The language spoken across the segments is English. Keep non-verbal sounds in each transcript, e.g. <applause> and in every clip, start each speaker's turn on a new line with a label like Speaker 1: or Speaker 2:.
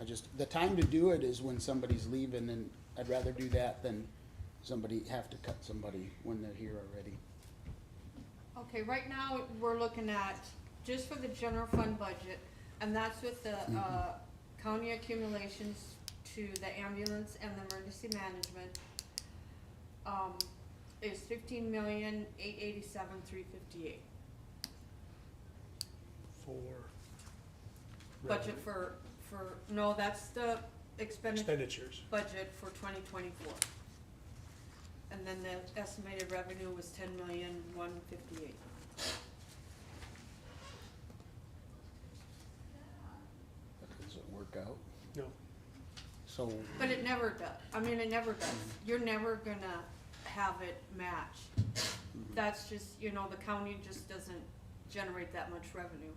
Speaker 1: I just, the time to do it is when somebody's leaving, and I'd rather do that than somebody, have to cut somebody when they're here already.
Speaker 2: Okay, right now, we're looking at, just for the general fund budget, and that's with the, uh, county accumulations to the ambulance and the emergency management. Um, is fifteen million, eight eighty-seven, three fifty-eight,
Speaker 3: for
Speaker 2: budget for, for, no, that's the expenditure
Speaker 3: expenditures.
Speaker 2: budget for twenty twenty-four. And then the estimated revenue was ten million, one fifty-eight.
Speaker 1: That doesn't work out.
Speaker 3: No,
Speaker 1: So,
Speaker 2: But it never does, I mean, it never does, you're never gonna have it match. That's just, you know, the county just doesn't generate that much revenue.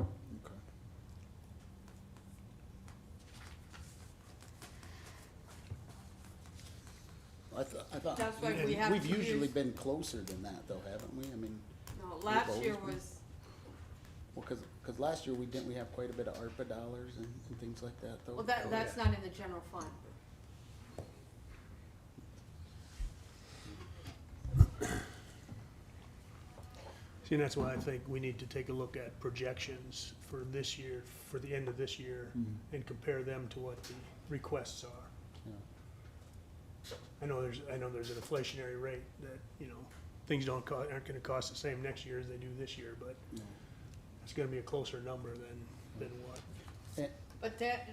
Speaker 1: okay. I thought, I thought.
Speaker 2: That's why we have
Speaker 1: Uh, We've
Speaker 2: to
Speaker 1: usually
Speaker 2: use-
Speaker 1: been closer than that though, haven't we? I mean,
Speaker 2: No,
Speaker 1: We've
Speaker 2: last year
Speaker 1: always been-
Speaker 2: was,
Speaker 1: well, cause, 'cause last year we didn't, we have quite a bit of ARPA dollars and, and things like that though. Oh,
Speaker 2: well, that, that's not in the general fund.
Speaker 3: see, and that's why I think we need to take a look at projections for this year, for the end of this year,
Speaker 1: Mhm.
Speaker 3: and compare them to what the requests are.
Speaker 1: Yeah.
Speaker 3: I know there's, I know there's an inflationary rate that, you know, things don't co- aren't gonna cost the same next year as they do this year, but
Speaker 1: No.
Speaker 3: it's gonna be a closer number than, than what.
Speaker 1: Eh,
Speaker 2: But that,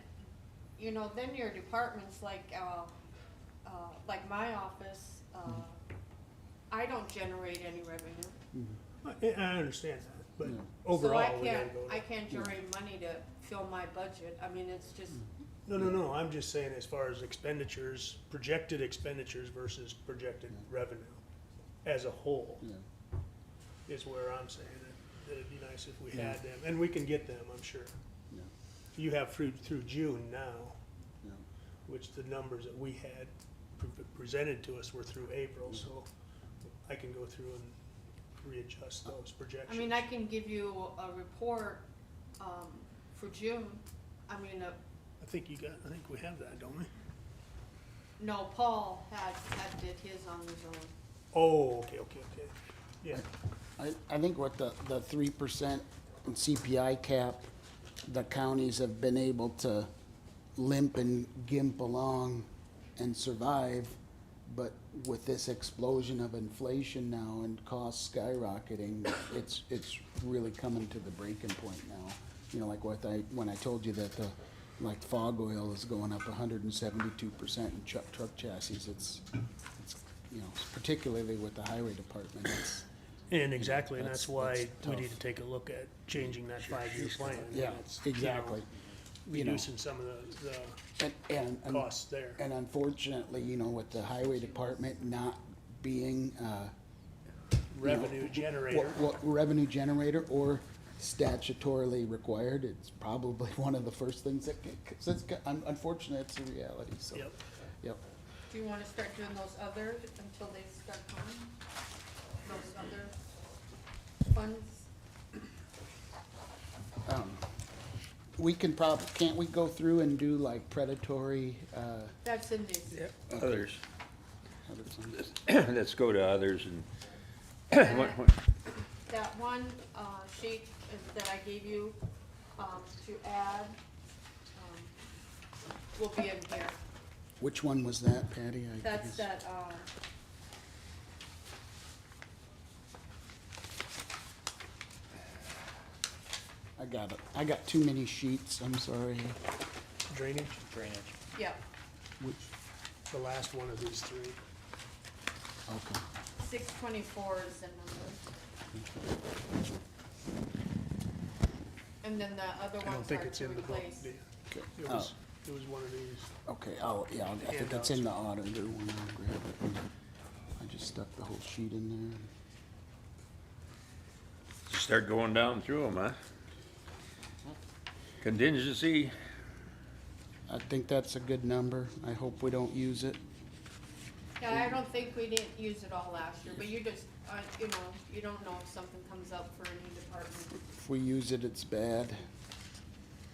Speaker 2: you know, then your departments like, uh, uh, like my office, uh, I don't generate any revenue.
Speaker 1: mhm.
Speaker 3: I, I understand that, but
Speaker 1: Yeah.
Speaker 3: overall, we
Speaker 2: So I
Speaker 3: gotta
Speaker 2: can't,
Speaker 3: go.
Speaker 2: I
Speaker 3: to-
Speaker 2: can't generate money to fill my budget, I mean, it's just,
Speaker 3: No, no, no, I'm just saying as far as expenditures, projected expenditures versus projected revenue as a whole.
Speaker 1: Yeah.
Speaker 3: is where I'm saying it, that it'd be nice if we
Speaker 1: Yeah.
Speaker 3: had them, and we can get them, I'm sure.
Speaker 1: Yeah.
Speaker 3: You have through, through June now,
Speaker 1: Yeah.
Speaker 3: which the numbers that we had pre- presented to us were through April, so I can go through and readjust those
Speaker 2: I
Speaker 3: projections.
Speaker 2: mean, I can give you a report, um, for June, I mean, uh,
Speaker 3: I think you got, I think we have that, don't we?
Speaker 2: no, Paul had, had did his on his own.
Speaker 3: Oh, okay, okay, okay, yeah,
Speaker 1: I, I think with the, the three percent and CPI cap, the counties have been able to limp and gimp along and survive. But with this explosion of inflation now and costs skyrocketing, it's, it's really coming to the breaking point now. You know, like what I, when I told you that the, like fog oil is going up hundred and seventy-two percent in truck, truck chassis, it's, it's, you know, particularly with the highway department, it's,
Speaker 3: and exactly, and
Speaker 1: That's-
Speaker 3: that's why
Speaker 1: that's
Speaker 3: we
Speaker 1: tough.
Speaker 3: need to take a look at changing that five-year plan. and
Speaker 1: Yeah,
Speaker 3: it's, you know,
Speaker 1: exactly. You know,
Speaker 3: Reducing some of the, the
Speaker 1: and, and, and-
Speaker 3: costs there.
Speaker 1: and unfortunately, you know, with the highway department not being, uh,
Speaker 3: revenue
Speaker 1: what,
Speaker 3: generator.
Speaker 1: what revenue generator or statutorily required, it's probably <laughs> one of the first things that, get- 'cause it's, got- un- unfortunately, it's a reality, so.
Speaker 3: Yep.
Speaker 1: Yep.
Speaker 2: Do you wanna start doing those other until they start coming? Those other funds?
Speaker 1: Um, We can prob, can't we go through and do like predatory, uh,
Speaker 2: That's in this.
Speaker 4: Others,
Speaker 1: other things?
Speaker 4: <coughs> let's go to others and, what, what,
Speaker 2: That one, uh, sheet is- that I gave you, um, to add, um, will be in here.
Speaker 1: Which one was that, Patty? I
Speaker 2: That's
Speaker 1: guess-
Speaker 2: that, um,
Speaker 1: I got it. I got too many sheets, I'm sorry.
Speaker 3: Drainage,
Speaker 2: yeah,
Speaker 1: Which,
Speaker 3: the last one of these three.
Speaker 1: okay.
Speaker 2: six twenty-four is the number. And then the other
Speaker 3: I don't
Speaker 2: ones
Speaker 3: think
Speaker 2: are
Speaker 3: it's
Speaker 2: to
Speaker 3: in the book.
Speaker 2: replace.
Speaker 3: the-
Speaker 1: Okay.
Speaker 3: It
Speaker 1: Oh.
Speaker 3: was, it was one of these.
Speaker 1: Okay, oh, yeah, I think it's in the auditor when I grab it. I just stuck the whole sheet in
Speaker 4: start going down through them, huh? Contingency,
Speaker 1: there. I think that's a good number. I hope we don't use it.
Speaker 2: Yeah, I don't think we didn't use it all last year, but you just, uh, you know, you don't know if something comes up for any department.
Speaker 1: If we use it, it's bad.